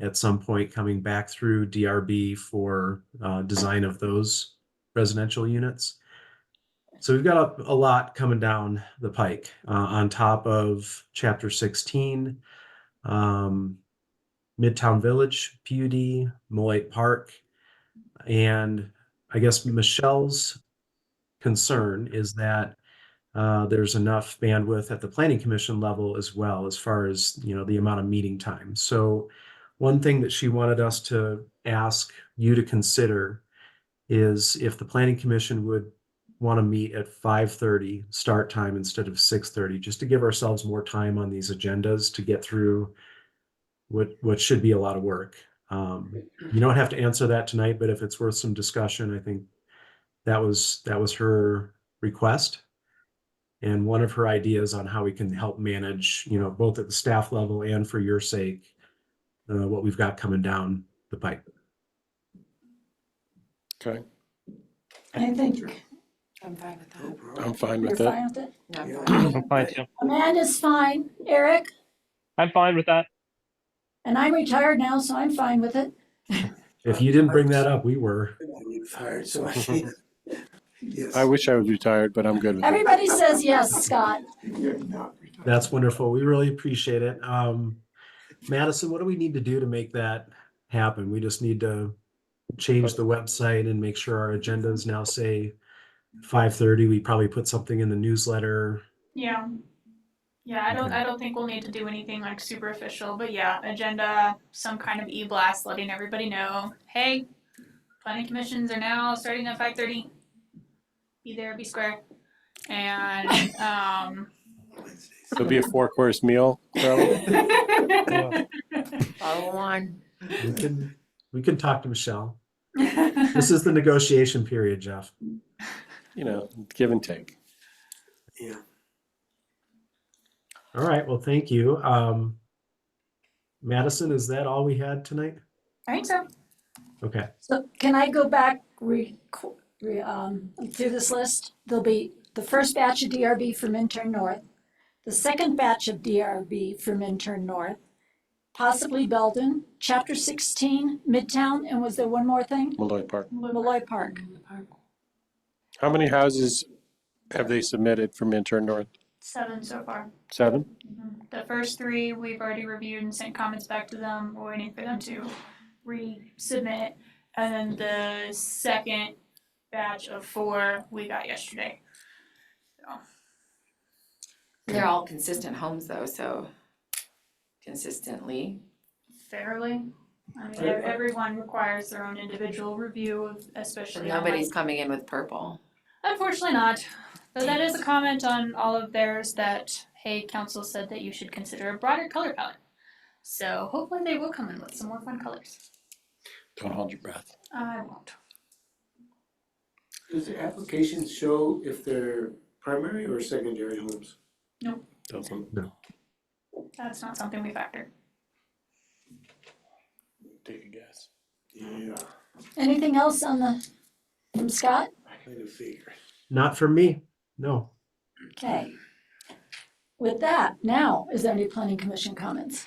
at some point coming back through DRB for uh, design of those residential units. So we've got a, a lot coming down the pike uh, on top of Chapter 16, um, Midtown Village, PUD, Molite Park, and I guess Michelle's concern is that uh, there's enough bandwidth at the planning commission level as well as far as you know the amount of meeting time. So one thing that she wanted us to ask you to consider is if the planning commission would want to meet at 5:30 start time instead of 6:30 just to give ourselves more time on these agendas to get through what what should be a lot of work. Um, you don't have to answer that tonight, but if it's worth some discussion, I think that was that was her request and one of her ideas on how we can help manage, you know, both at the staff level and for your sake, uh, what we've got coming down the pipe. Okay, I think I'm fine with that. I'm fine You're with that. fine with it? I'm fine too. Amanda's fine, Eric, I'm fine with that. and I'm retired now, so I'm fine with it. If you didn't bring that up, we were. Tired, so I can't. Yes. I wish I was retired, but I'm good with it. Everybody says yes, Scott. You're not retired. That's wonderful. We really appreciate it. Um, Madison, what do we need to do to make that happen? We just need to change the website and make sure our agendas now say 5:30. We probably put something in the newsletter. Yeah. Yeah, I don't Okay. I don't think we'll need to do anything like super official, but yeah, agenda, some kind of e-blast letting everybody know, hey, planning commissions are now starting at five thirty. Be there, be square. And um Wednesdays. It'll be a four-course meal, probably. Follow on. We can, we can talk to Michelle. This is the negotiation period, Jeff. You know, give and take. Yeah. All right, well, thank you. Um, Madison, is that all we had tonight? I think so. Okay, So can I go back, re, re, um, through this list? There'll be the first batch of DRB for Minturn North, the second batch of DRB for Minturn North, possibly Belden, chapter sixteen, Midtown, and was there one more thing? Malloy Park. Malloy Park. How many houses have they submitted from intern north? Seven so far. Seven? Mhm. The first three we've already reviewed and sent comments back to them, we're waiting for them to resubmit. And then the second batch of four we got yesterday. They're all consistent homes though, so consistently. Fairly, I mean, ev- everyone requires their own individual review of, especially on like Nobody's coming in with purple. Unfortunately not, but that is a comment on all of theirs that, hey, council said that you should consider a broader color palette. So hopefully they will come in with some more fun colors. Don't hold your breath. I won't. Does the applications show if they're primary or secondary homes? Doesn't. That's not something we factor. Take a guess. Yeah, Anything else on the, from Scott? I kind of figured. not for me, no. Okay. With that, now, is there any planning commission comments?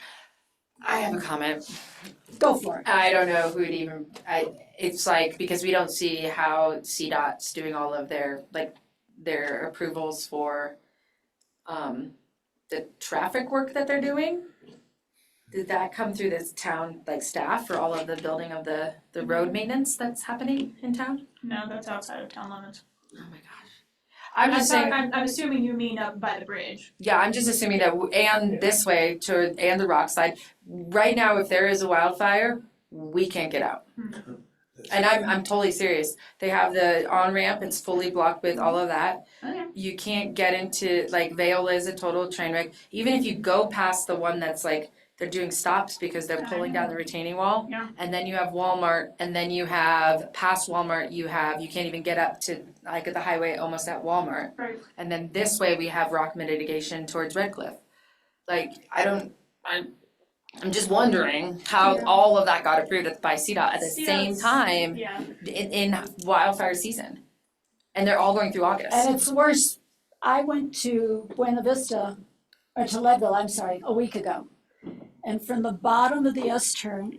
I have a comment. Go for it. I don't know who'd even, I, it's like, because we don't see how CDOT's doing all of their, like, their approvals for um, the traffic work that they're doing. Did that come through this town, like, staff for all of the building of the, the road maintenance that's happening in town? No, that's outside of town limits. Oh my gosh. I'm just saying. I'm, I'm assuming you mean up by the bridge. Yeah, I'm just assuming that, w- and this way toward, and the rock side, right now, if there is a wildfire, we can't get out. And I'm, I'm totally serious, they have the on-ramp, it's fully blocked with all of that. Okay. You can't get into, like, Vale is a total train wreck, even if you go past the one that's like, they're doing stops because they're pulling down the retaining wall. Yeah. And then you have Walmart, and then you have, past Walmart, you have, you can't even get up to, like, at the highway, almost at Walmart. Right. And then this way we have rock mitigation towards Red Cliff. Like, I don't, I'm, I'm just wondering how Yeah. all of that got approved by CDOT at the same CDOT's time Yeah. in, in wildfire season. And they're all going through August. And it's worse, I went to Buena Vista, or to Leadville, I'm sorry, a week ago. And from the bottom of the S turn